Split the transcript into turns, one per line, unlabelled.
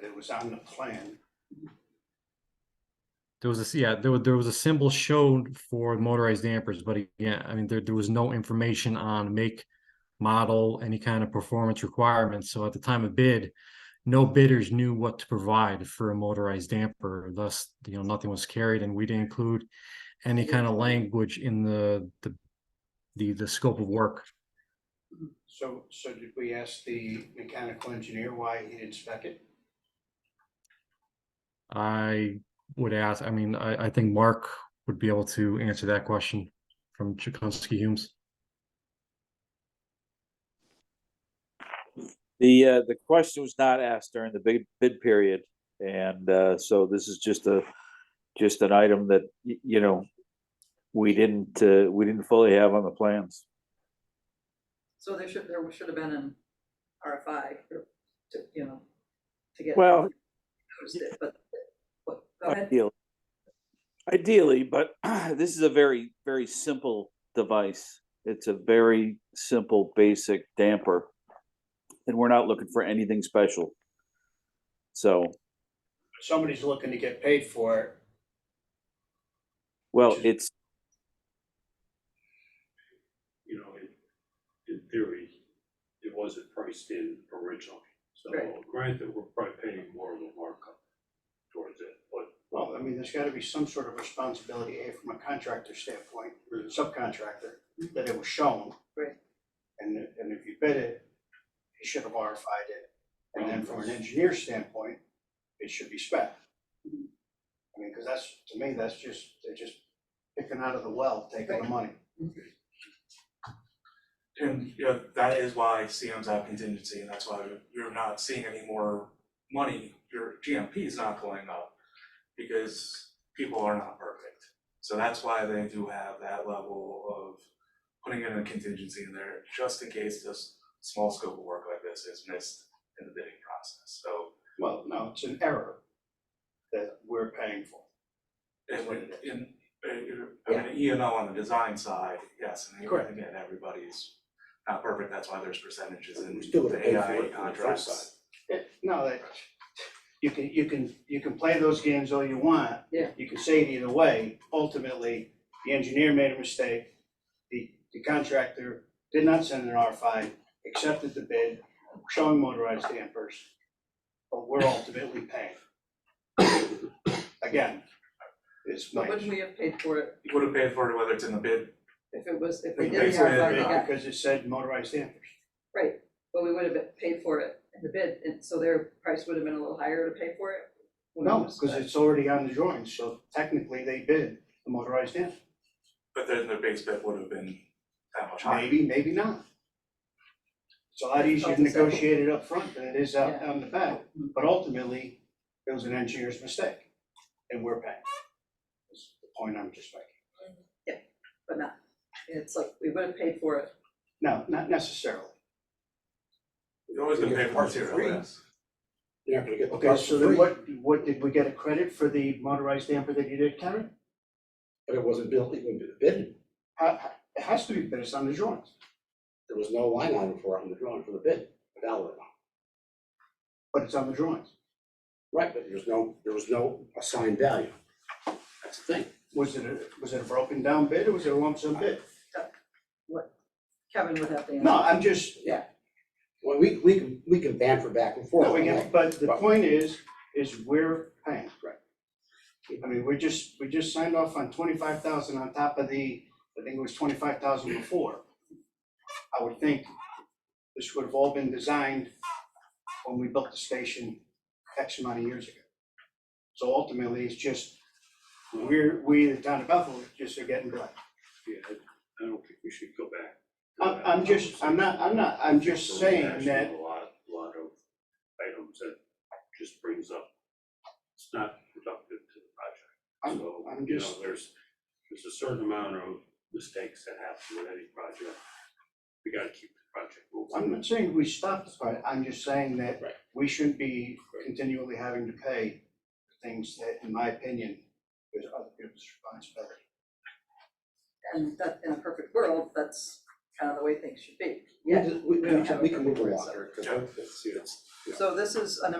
that it was on the plan.
There was a, yeah, there was, there was a symbol shown for motorized dampers, but again, I mean, there, there was no information on make, model, any kind of performance requirements. So at the time of bid, no bidders knew what to provide for a motorized damper, thus, you know, nothing was carried and we didn't include any kind of language in the, the, the, the scope of work.
So, so did we ask the mechanical engineer why he didn't spec it?
I would ask, I mean, I, I think Mark would be able to answer that question from Chikonski Humes.
The, uh, the question was not asked during the bid, bid period, and, uh, so this is just a, just an item that, y- you know, we didn't, uh, we didn't fully have on the plans.
So there should, there should have been an RFI for- to, you know, to get.
Well-
noticed it, But, but, go ahead.
Ideally, Ideally, but this is a very, very simple device. It's a very simple, basic damper. And we're not looking for anything special. So,
Somebody's looking to get paid for it.
well,
Which is-
it's,
you know, in, in theory, it wasn't priced in originally. So
Right.
granted, we're probably paying more of a markup towards it, but
Well, I mean, there's gotta be some sort of responsibility, A, from a contractor standpoint, or the subcontractor, that it was shown.
Right.
And, and if you bid it, he should have RFI'd it. And then from an engineer standpoint, it should be spec. I mean, cause that's, to me, that's just, they're just picking out of the well, taking the money.
And yeah, that is why CMs have contingency and that's why you're not seeing any more money, your GMP is not going up. Because people are not perfect, so that's why they do have that level of putting in a contingency in there, just in case this small scope of work like this is missed in the bidding process, so.
Well, no, it's an error that we're paying for.
And when, in, uh, I mean, E and O on the design side, yes, and
Correct.
again, everybody's not perfect, that's why there's percentages in
We still gotta
the
pay for it
AI
on the front side.
contracts.
It, no, that, you can, you can, you can play those games all you want.
Yeah.
You can say it either way, ultimately, the engineer made a mistake, the, the contractor did not send an RFI, accepted the bid, showing motorized dampers, but we're ultimately paying. Again, it's my.
But wouldn't we have paid for it
You would have paid for it whether it's in the bid,
if it was, if
We
we did
paid
the
for it,
RFI, they
yeah.
got,
Because it said motorized dampers.
right, but we would have been- paid for it in the bid, and so their price would have been a little higher to pay for it? Who
No,
knows?
because it's already on the drawings, so technically they bid the motorized damper.
but then their base bid would have been that much higher.
Maybe, maybe not. It's a lot easier to negotiate it up front than it is out on the back, but ultimately, it was an engineer's mistake, and we're paying. That's the point I'm just making.
But not, it's like, we would have paid for it,
No, not necessarily.
You're always gonna pay for
Parts of
material,
free.
yes.
you're not gonna get the
Okay,
parts
so
for
then
free
what, what, did we get a credit for the motorized damper that you did, Karen?
if it wasn't built even to bid.
Uh, It has to be, but it's on the drawings.
There was no line item for it on the drawing for the bid, a dollar amount.
But it's on the drawings.
Right, but there's no, there was no assigned value. That's the thing.
Was it a, was it a broken down bid or was it a lump sum bid?
Kevin would have the answer.
No, I'm just,
Well, we, we can, we can banter back and forth.
No, we get, but the point is, is we're paying. Right. I mean, we just, we just signed off on twenty-five thousand on top of the, I think it was twenty-five thousand before. I would think this would have all been designed when we built the station X amount of years ago. So ultimately, it's just, we're, we, the town of Bethel, just are getting blamed.
Yeah, I don't think we should go back.
I'm, I'm just, I'm not, I'm not, I'm just saying that
A lot, a lot of items that just brings up, it's not productive to the project.
I'm-
So,
I'm
you
just-
know, there's, there's a certain amount of mistakes that happen with any project. We gotta keep the project
I'm
moving.
not saying we stop this part, I'm just saying that
Right.
we shouldn't be continually having to pay for things that, in my opinion, is other people's responsibility.
And that, in a perfect world, that's kind of the way things should be.
We, just-
we
we, we
don't
can-
have a
we can move
perfect
around
answer.
here, because it's, it's,
So this is an